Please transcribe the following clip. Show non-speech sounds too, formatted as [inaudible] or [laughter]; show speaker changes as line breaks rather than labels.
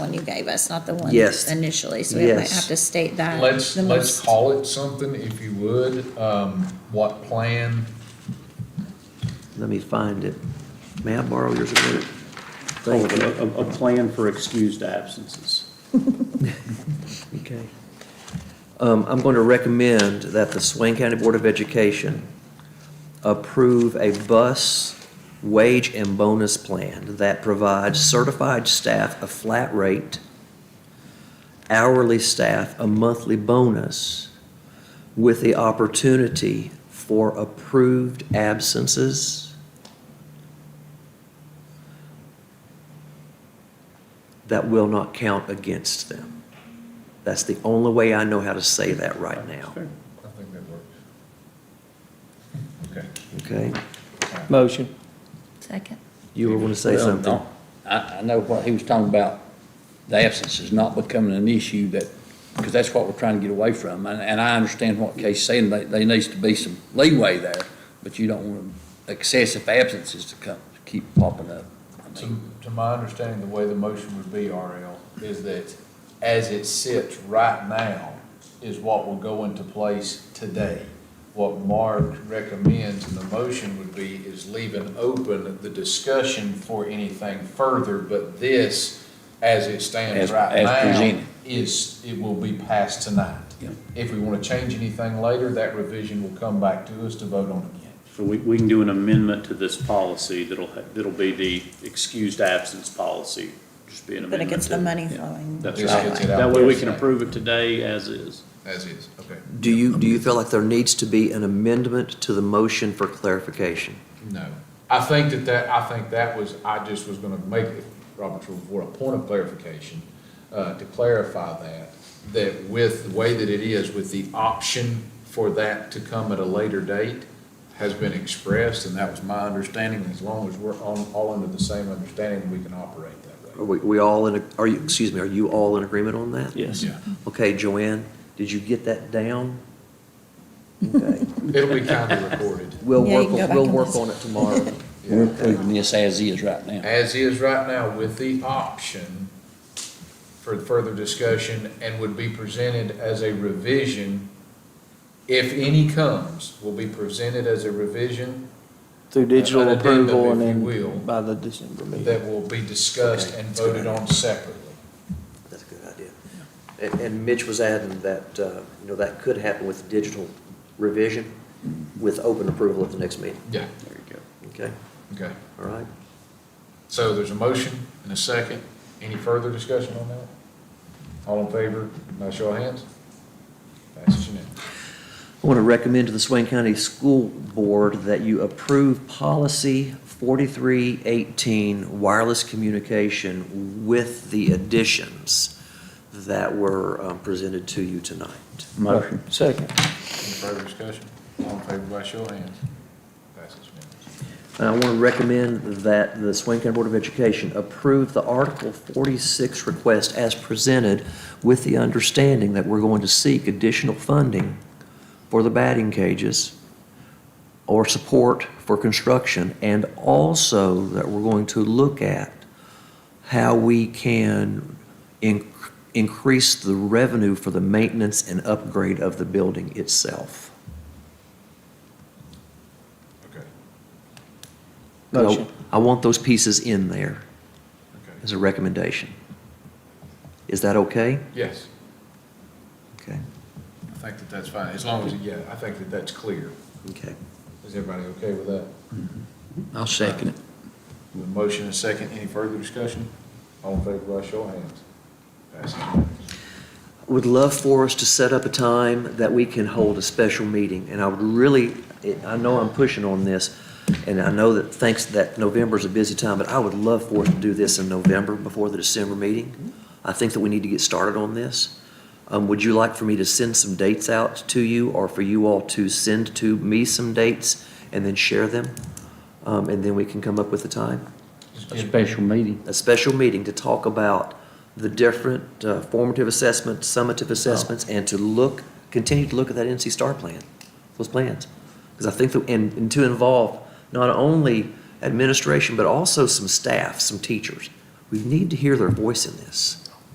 one you gave us, not the one
Yes.
initially, so we might
Yes.
have to state that.
Let's,
Um, the
let's
most-
call it something, if you would, um, what plan,
Let me find it. May I borrow yours a minute?
Oh,
Thank you.
A, a- a plan for excused absences.
Okay. Um, I'm going to recommend that the Swain County Board of Education approve a bus wage and bonus plan that provides certified staff a flat rate, hourly staff a monthly bonus with the opportunity for approved absences that will not count against them. That's the only way I know how to say that right now,
Fair.
I think that works. [laughs] Okay.
okay?
Motion.
Second.
You were going to say
Well,
something?
no, I, I know what he was talking about, the absence is not becoming an issue that, because that's what we're trying to get away from. And, and I understand what Casey's saying, they, they needs to be some leeway there, but you don't want excessive absences to come, to keep popping up. I
To,
mean,
to my understanding, the way the motion would be, RL, is that as it sits right now is what will go into place today. What Mark recommends in the motion would be is leaving open the discussion for anything further, but this, as it stands
As-
right
as
now,
presented.
is, it will be passed tonight.
Yeah.
If we want to change anything later, that revision will come back to us to vote on again.
So we, we can do an amendment to this policy that'll, ha- that'll be the excused absence policy, just be an
But it
amendment.
gets the
to-
money flowing.
That's
Just
right.
gets it out
That way we
there.
can approve it today as is.
As is, okay.
Do you, do you feel like there needs to be an amendment to the motion for clarification?
No. I think that that, I think that was, I just was gonna make, Robert's rule for a point of clarification, uh, to clarify that, that with the way that it is, with the option for that to come at a later date has been expressed, and that was my understanding, as long as we're on, all under the same understanding, we can operate that
Are
way.
we, we all in, a- are you, excuse me, are you all in agreement on that?
Yes.
Okay, Joanne, did you get that down?
[laughs]
Okay,
It'll be kinda recorded.
we'll
Yeah, you
work,
can go back
we'll
and
work
listen.
on it tomorrow.
We're approving this as is right now.
As is right now with the option for further discussion and would be presented as a revision, if any comes, will be presented as a revision uh,
Through digital
An addendum,
approval and
if you will.
then by the December meeting.
that will be discussed and voted on separately.
That's a good idea. And, and Mitch was adding that, uh, you know, that could happen with digital revision with open approval at the next meeting,
Yeah.
There you go.
okay?
Okay,
All right?
so there's a motion and a second. Any further discussion on that? All in favor, by show of hands? Passes unanimously.
I want to recommend to the Swain County School Board that you approve policy 4318, wireless communication, with the additions that were um, presented to you tonight.
Motion.
Second.
Any further discussion? All in favor, by show of hands? Passes unanimously.
And I want to recommend that the Swain County Board of Education approve the Article 46 request as presented with the understanding that we're going to seek additional funding for the batting cages or support for construction, and also that we're going to look at how we can in- increase the revenue for the maintenance and upgrade of the building itself.
Okay,
Motion.
I want those pieces in there.
okay.
as a recommendation. Is that okay?
Yes,
Okay.
I think that that's fine, as long as, yeah, I think that that's clear.
Okay.
Is everybody okay with that?
I'll second it.
With motion and second, any further discussion? All in favor, by show of hands. Passes unanimously.
Would love for us to set up a time that we can hold a special meeting, and I would really, I know I'm pushing on this, and I know that thanks, that November's a busy time, but I would love for us to do this in November before the December meeting. I think that we need to get started on this. Um, would you like for me to send some dates out to you, or for you all to send to me some dates and then share them? Um, and then we can come up with a time?
A special meeting.
a special meeting to talk about the different uh, formative assessments, summative assessments, and to look, continue to look at that NC STAR plan, those plans. Because I think, that and, and to involve not only administration, but also some staff, some teachers. We need to hear their voice in this.